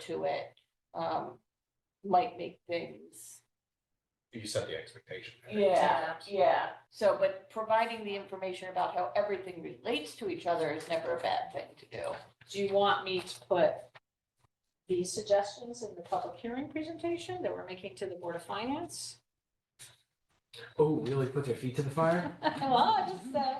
to it, um, might make things. You set the expectation. I think, Yeah, sometimes. yeah. So, but providing the information about how everything relates to each other is never a bad thing to do. Do you want me to put these suggestions in the public hearing presentation that we're making to the Board of Finance? Oh, really put their feet to the fire? Well, I just, uh,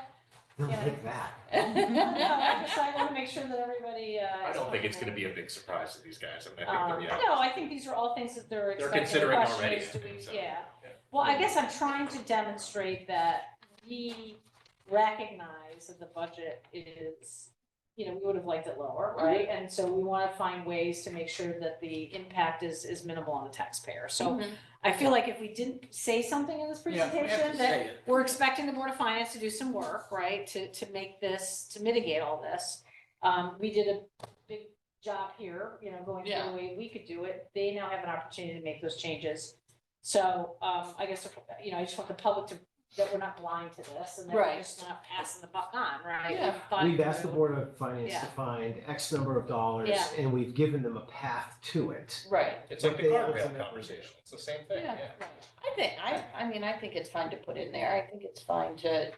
No, Yeah. like that. I just, I want to make sure that everybody, uh. I is don't think it's gonna comfortable. be a big surprise to these guys. I mean, I Um, think, they'll be no, I think these are all things that they're they're expecting. The considering question already. I is, do think, we- so. Yeah. Well, I guess I'm trying to demonstrate that we recognize that the budget is, you know, we would have liked it lower, right? Mm-hmm. And so we want to find ways to make sure that the impact is, is minimal on the taxpayer. So I feel like if we didn't say something in this presentation, that we're expecting the Board of Finance to do some work, right, to, to make this, to mitigate all this. Um, we did a big job here, you know, going through Yeah. the way we could do it. They now have an opportunity to make those changes. So, um, I guess, you know, I just want the public to, that we're not blind to this and that we're Right. just not passing the buck on, right? We've Yeah. thought We've asked the through. Board of Finance Yeah. to find X number of dollars Yeah. and we've given them a path to it. Right. It's like the They guardrail ultimately- conversation. It's the same thing, Yeah. yeah. Right. I think, I, I mean, I think it's fine to put in there. I think it's fine to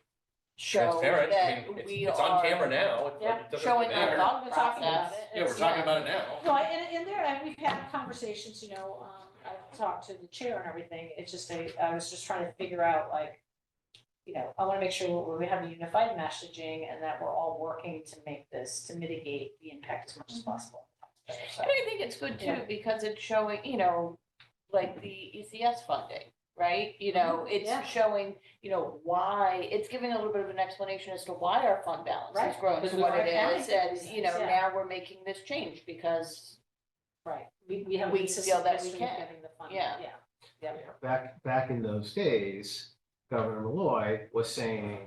show Transparent. I that mean, it's, we it's on are camera now. It- Yeah. It doesn't showing our matter. thought We're talking about process. it. Yeah, we're It's- talking about it now. Well, and, and there, and we've had conversations, you know, um, I've talked to the chair and everything, it's just, I, I was just trying to figure out like, you know, I wanna make sure we have a unified messaging and that we're all working to make this, to mitigate the impact as much Mm-hmm. as possible. So, And I think it's good too, Yeah. because it's showing, you know, like the ECS funding, right? You know, it's Mm-hmm. Yeah. showing, you know, why, it's giving a little bit of an explanation as to why our fund balance Right. is growing to Because what we're it is. accounting And, for you know, things, now we're making this change because, Right, we, we have. We a feel that we consistent history can. of Getting the funding, Yeah. yeah. Back, back in those days, Governor Malloy was saying,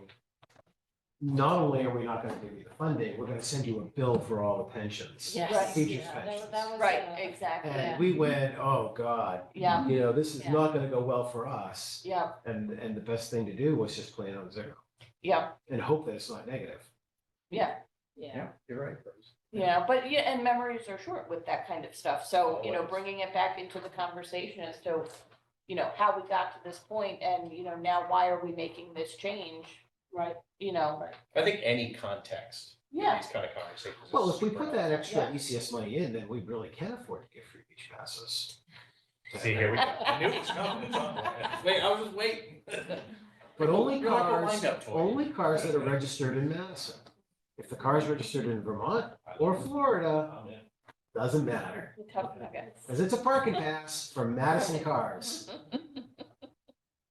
not only are we not gonna give you the funding, we're gonna send you a bill for all the pensions. Right. Teachers' Yeah, that- pensions. That was. right, uh, exactly. And we went, oh, God, Yeah, you know, this is Yeah. not gonna go well for us. yeah, And, and the best thing to do was just plan on zero yeah, and hope that it's not negative. yeah, Yeah, you're right. Bruce. yeah. But yeah, and memories are short with that kind of stuff. So, you know, Always. bringing it back into the conversation as to, you know, how we got to this point and, you know, now why are we making this change? right, You know, I think any context for yeah, these kind of conversations. is Well, if we super put that helpful. extra Yeah. ECS money in, then we really can afford to give free beach passes. See, here we go. I knew it was coming. It's on. Wait, I was just waiting. But only You're like a cars, wind-up toy. only cars that are registered in Madison. If the car is registered in Vermont or Florida, I'm in. doesn't matter, we're talking about it. because it's a parking pass for Madison cars. Mm-hmm.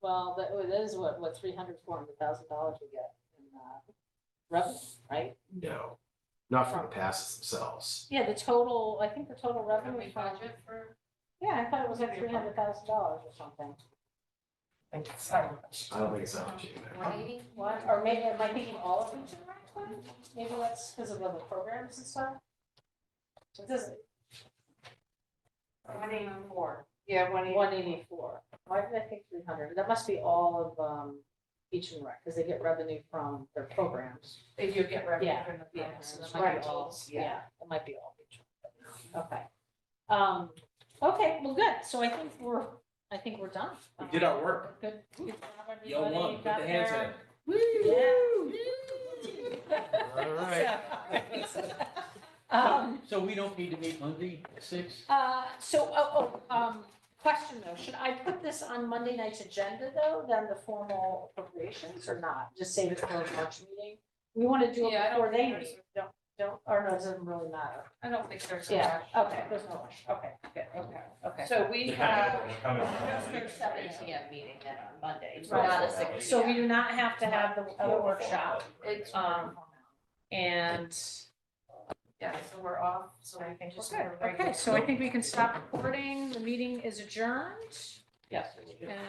well, that, that is what, what, three hundred, four hundred thousand dollars we get in, uh, revenue, right? No, not for the passes themselves. Yeah, the total, I think the total revenue from, for? yeah, I thought it was like three hundred thousand dollars or something. I don't think it's that much either. One eighty? One, or maybe, am I thinking all of Region Rec twenty? Maybe that's because of other programs and stuff? So this is One eighty. four, Yeah, one one eighty-four. Why did I think three hundred? That must be all of, um, Beach and Rec, because they get revenue from their programs. They do get Yeah, from the Yeah, so programs. that might be all, yeah, that might be all mutual. Okay. Um, okay, well, good. So I think we're, I think we're done. Um, We did our work. Good. good job, Yo, everybody. one, put the hands Got in. there. All right. Um, So we don't need to meet Monday at six? uh, so, oh, oh, um, question though, should I put this on Monday night's agenda though, then the formal appropriations or not? Just save it for the March meeting? We want to do Yeah, it I don't before they think meet. Don't, don't, or no, it doesn't really matter. I don't think there's. a Yeah, rush. okay, there's no rush. Okay, good, okay, okay. So we have uh, a seven Yeah. P M meeting then on Monday, it's Right. not a six. So we do not have to have the Yeah. other workshop. It's, Um, and, Yeah, so we're off, so we can just. okay, so I think we can stop recording. The meeting is adjourned. yes. And